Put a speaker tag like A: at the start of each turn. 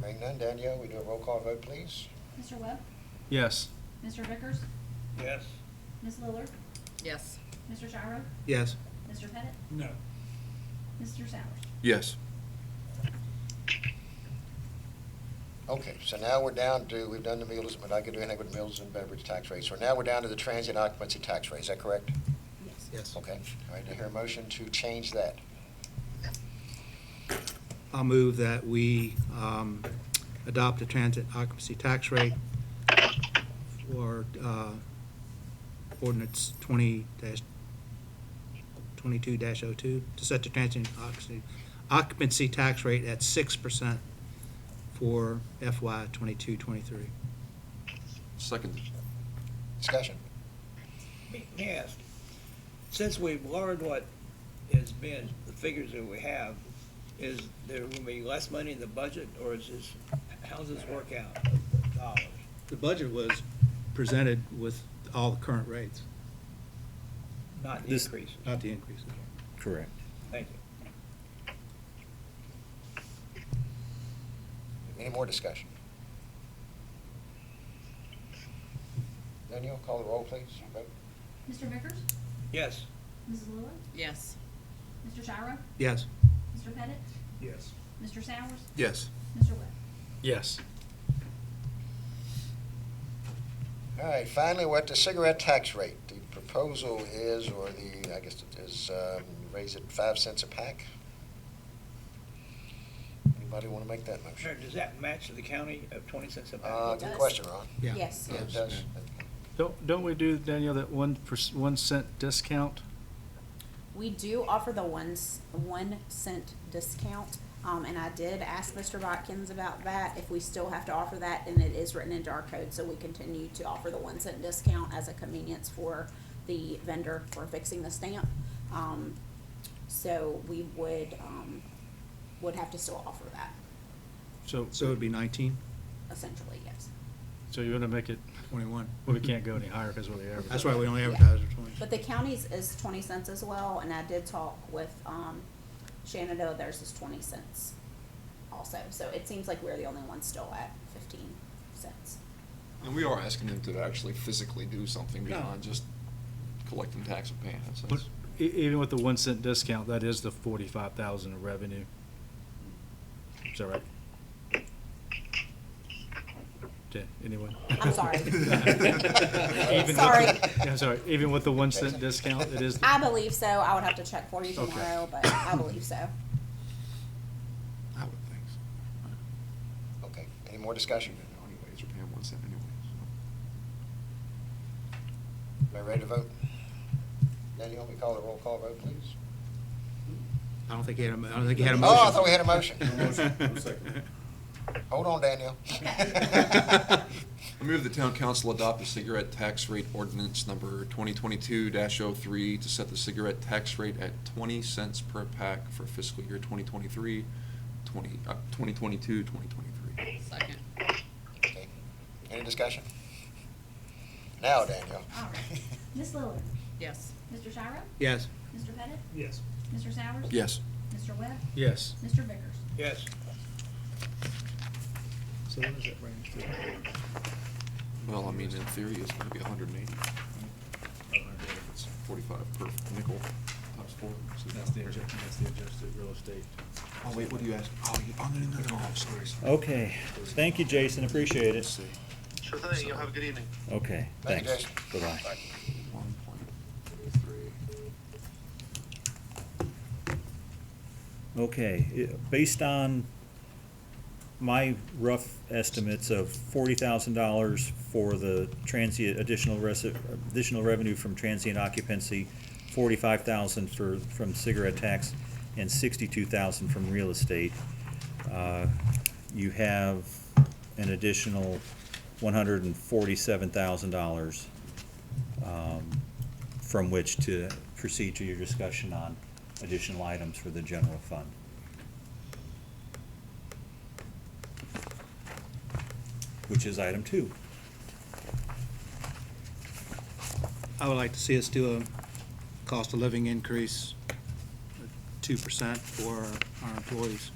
A: Hearing none, Danielle, we do a roll call vote, please.
B: Mr. Webb?
C: Yes.
B: Mr. Vickers?
D: Yes.
B: Ms. Lillard?
E: Yes.
B: Mr. Gyro?
C: Yes.
B: Mr. Pettit?
D: No.
B: Mr. Sowers?
F: Yes.
A: Okay, so now we're down to, we've done the meals, but I could do anything with meals and beverage tax rates. So now we're down to the transient occupancy tax rate, is that correct?
B: Yes.
C: Yes.
A: Okay, all right, do I hear a motion to change that?
C: I'll move that we um, adopt a transit occupancy tax rate for uh, ordinance twenty twenty-two 2 to set the transit occupancy, occupancy tax rate at six percent for FY twenty-two, twenty-three.
F: Second.
A: Discussion?
D: Yes. Since we've learned what has been, the figures that we have, is there gonna be less money in the budget, or is this, how does this work out, dollars?
C: The budget was presented with all the current rates,
D: Not
G: This-
D: increases,
C: not the increases.
G: Correct.
D: thank you.
A: Any more discussion? Danielle, call the roll, please. Vote.
B: Mr. Vickers?
D: Yes.
B: Ms. Lillard?
E: Yes.
B: Mr. Gyro?
C: Yes.
B: Mr. Pettit?
D: Yes.
B: Mr. Sowers?
F: Yes.
B: Mr. Webb?
C: Yes.
A: All right, finally, we're at the cigarette tax rate. The proposal is, or the, I guess it is, um, raise it five cents a pack. Anybody want to make that
D: Sure,
A: motion?
D: does that match the county of twenty cents a
A: Uh,
D: pound?
A: good
E: does.
A: question, Ron.
C: Yeah.
E: Yes.
A: Yeah, it does.
H: Don't, don't we do, Danielle, that one perc- one cent discount?
I: We do offer the one, s- one cent discount, um, and I did ask Mr. Watkins about that, if we still have to offer that, and it is written into our code, so we continue to offer the one cent discount as a convenience for the vendor for fixing the stamp. Um, so we would, um, would have to still offer that,
H: So,
C: So it'd be nineteen,
I: essentially, yes.
H: so you want to make it,
C: twenty-one.
H: well, we can't go any higher because we're the average.
C: That's why we only
I: Yeah.
C: advertise for twenty.
I: But the county's is twenty cents as well, and I did talk with, um, Shenandoah, theirs is twenty cents also, so it seems like we're the only ones still at fifteen cents.
F: And we are asking them to actually physically do something
C: No.
F: beyond just collecting tax and paying. That's-
H: But e- even with the one cent discount, that is the forty-five thousand of revenue. Is that right? Yeah, anyone?
I: I'm sorry.
H: Even with the-
I: Sorry.
H: Yeah, sorry, even with the one cent discount, it is,
I: I believe so, I would have to check for you
H: Okay.
I: tomorrow, but I believe so.
F: I would think so.
A: Okay, any more discussion?
F: Anyways, you're paying one cent anyways.
A: Everybody ready to vote? Danielle, we call the roll call vote, please?
C: I don't think he had, a mo- I don't think he had a
A: Oh,
C: motion.
A: I thought we had a motion. Hold on, Danielle.
F: I move the town council adopt the cigarette tax rate ordinance number 2022-03 to set the cigarette tax rate at 20 cents per pack for fiscal year 2023, 20, uh, 2022, 2023.
E: Second.
A: Okay. Any discussion? Now, Danielle.
B: All right. Ms. Lillard?
E: Yes.
B: Mr. Gyro?
C: Yes.
B: Mr. Pettit?
D: Yes.
B: Mr. Sowers?
F: Yes.
B: Mr. Webb?
H: yes.
B: Mr. Vickers?
D: Yes.
C: So what does that bring us
F: Well, I mean, in theory, it's gonna be hundred and eighty. It's forty-five per nickel, times four. so
H: that's the adjusted real estate.
F: Oh, wait, what do you ask? Oh, you, oh, no, no, no, no, I'm sorry.
G: Okay, thank you, Jason, appreciate it.
J: Sure thing. Y'all have a good evening.
G: Okay,
A: Thank you,
G: thanks.
A: Jason.
G: Bye-bye.
F: One point three.
G: Okay, i- based on my rough estimates of forty thousand dollars for the transient, additional resi- additional revenue from transient occupancy, forty-five thousand for, from cigarette tax, and sixty-two thousand from real estate, uh, you have an additional one hundred and forty-seven thousand dollars um, from which to proceed to your discussion on additional items for the general fund. Which is item two.
C: I would like to see us do a cost of living increase, two percent for our employees.